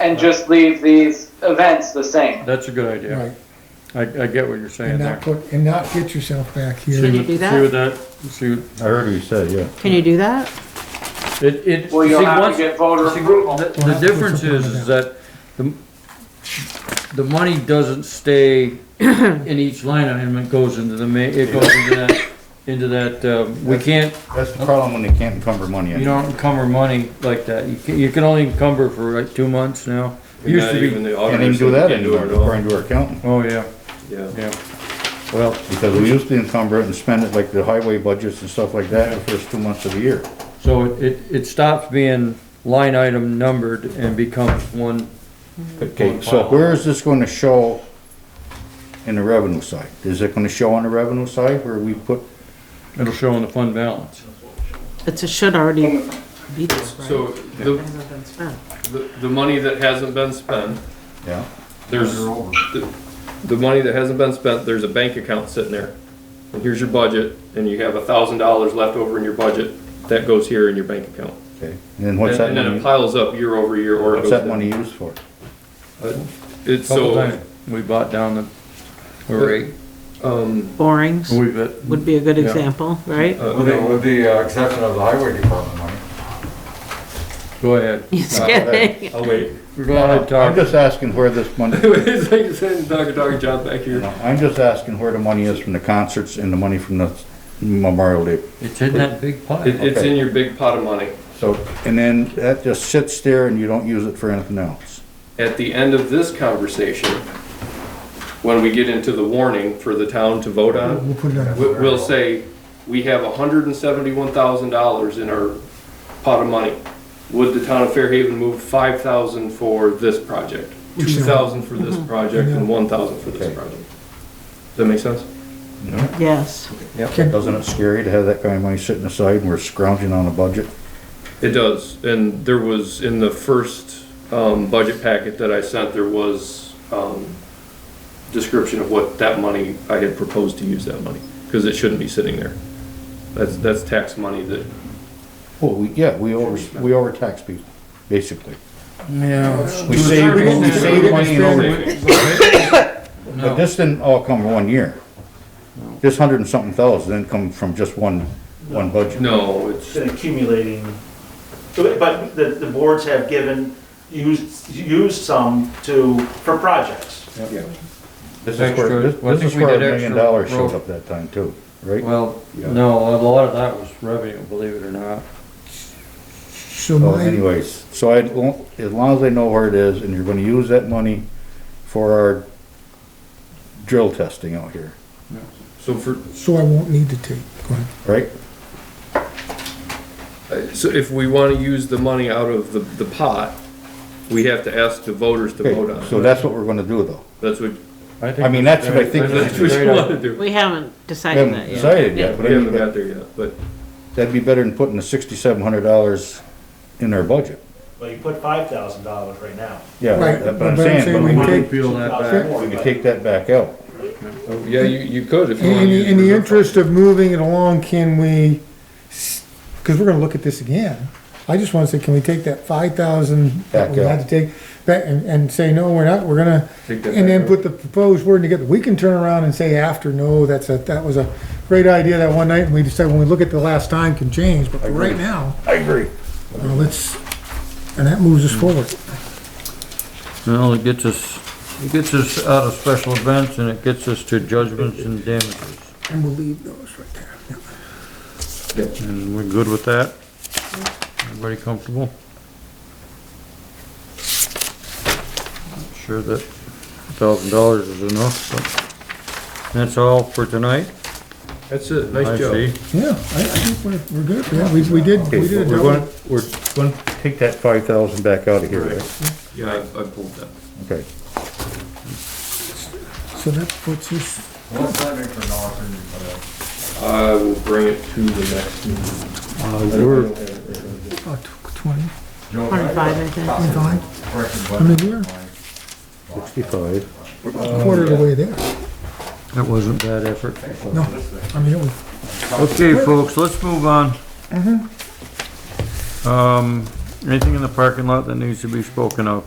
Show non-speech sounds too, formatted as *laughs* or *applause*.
and just leave these events the same. That's a good idea. right, I, I get what you're saying and not Oh, there. put, and not get yourself back See here. you what, do see that? what that, see, what- I heard what you said, yeah. Can you do that? it, it. Well, you'll see, have once- to get voter see, approval. The the difference is, is that the, the money doesn't stay in each line item, it goes into the ma, it goes into that, into that, um, we can't, That's the problem when they can't encumber money. you don't encumber money like that. You can, you can only encumber for like two months now. It Used Not to even be, the Can't even auditors do that can do anymore, it at all. according to our accountant, oh, yeah, Yeah. yeah. Well, because we used to encumber it and spend it like the highway budgets and stuff like that in the first two months of the year. so it, it- it stops being line item numbered and becomes one. Okay, so where is this gonna show in the revenue side? Is it gonna show on the revenue side where we put, It'll show in the fund balance. It's, it should already be this, right? So the, Hasn't been spent. the, the money that hasn't been spent, yeah? there's, the, the money that hasn't been spent, there's a bank account sitting there. And here's your budget, and you have a thousand dollars left over in your budget, that goes here in your bank account. Okay, and then And what's that and then it money, piles up year over year or it what's goes that down. money used for? It's Couple so, times We bought down the, the rate. um, Borings We've, uh, would be a good Yeah. example, right? uh, With the, with the uh, exception of the highway department money. Go ahead. Just Uh, kidding. I'll oh, wait. *laughs* Go ahead, I'm Todd. just asking where this money, *laughs* It's like saying, Dr. Dr. John back here. I'm just asking where the money is from the concerts and the money from the Memorial Day It's in that big pot. It, it's Okay. in your big pot of money. So, and then that just sits there and you don't use it for anything else. At the end of this conversation, when we get into the warning for the town to vote on, We'll put it on, we- we'll say, we have hundred and seventy-one thousand dollars in our pot of money. Would the town of Fairhaven move five thousand for this project, We should. two thousand Mm-hmm. for this project, and one thousand for this Okay. project? Does that make sense? Yes. Doesn't it scary to have that kind of money sitting aside and we're scrounging on a budget? It does, and there was, in the first, um, budget packet that I sent, there was, um, description of what that money, I had proposed to use that money, because it shouldn't be sitting there. That's, that's tax money that, Well, we, yeah, we over, we overtax people, basically. Yeah. We save, we save money and over, but No, this didn't all come in one year. This hundred and something thousand didn't come from just one, one budget. no, it's, It's been accumulating, but the, the boards have given, used, used some to, for projects. This is where, this- Well, I this think is we where a did million extra dollars showed road. up that time too, right? well, no, a lot of that was revenue, believe it or not. so So my, anyways, so I, don't- as long as I know where it is and you're gonna use that money for our drill testing out here, so for, so I won't need to take, go ahead. right? so if we wanna use the money out of the, the pot, we have to ask the voters to vote on Okay, so it. that's what we're gonna do though. That's what, think I mean, that's what I think that's that's a what great you wanna idea. do. We haven't We decided that haven't yet. decided yet, but We I mean, haven't that- got there yet, but that'd be better than putting the sixty-seven hundred dollars in our budget. Well, you put five thousand dollars right now. Yeah, Right, that's what I'm but I'm saying saying, but we we can can, Take- Peel that back. we can take that back out. Oh, Yeah, you, you could if you In, want. the- in the interest of moving it along, can we, because we're gonna look at this again. I just wanna say, can we take that five thousand that we Back had out. to take, back and, and say, no, we're not, we're gonna, Take that and then back put the proposed wording together. We can turn around and say after, no, that's a, that was a great idea that one night, and we decided when we look at the last time can change, but for right now, I agree. Hmm. uh, let's, and that moves us forward. Well, it gets us, it gets us out of special events and it gets us to judgments and damages. And we'll leave those right there. Yeah. And we're good with that? Everybody comfortable? Not Sure that thousand dollars is enough, but that's all for tonight. That's it, I nice job. see. Yeah, I, I think we're, we're good, yeah, we, we did, Okay, we but did. a we're double- gonna, we're gonna take that five thousand back out of here, right? Yeah, I, I pulled that. Okay. So that puts us, What's that make for an opportunity for that? I will bring it to the next meeting. Uh, we're, uh, tw- twenty, Joe, I got Twenty-five, I think. twenty-five, a correction I mean, button. we're Sixty-five. Uh, a quarter of the way there. that wasn't bad effort. No, I mean, it was, Okay, folks, let's move on. Um, anything in the parking lot that needs to be spoken of?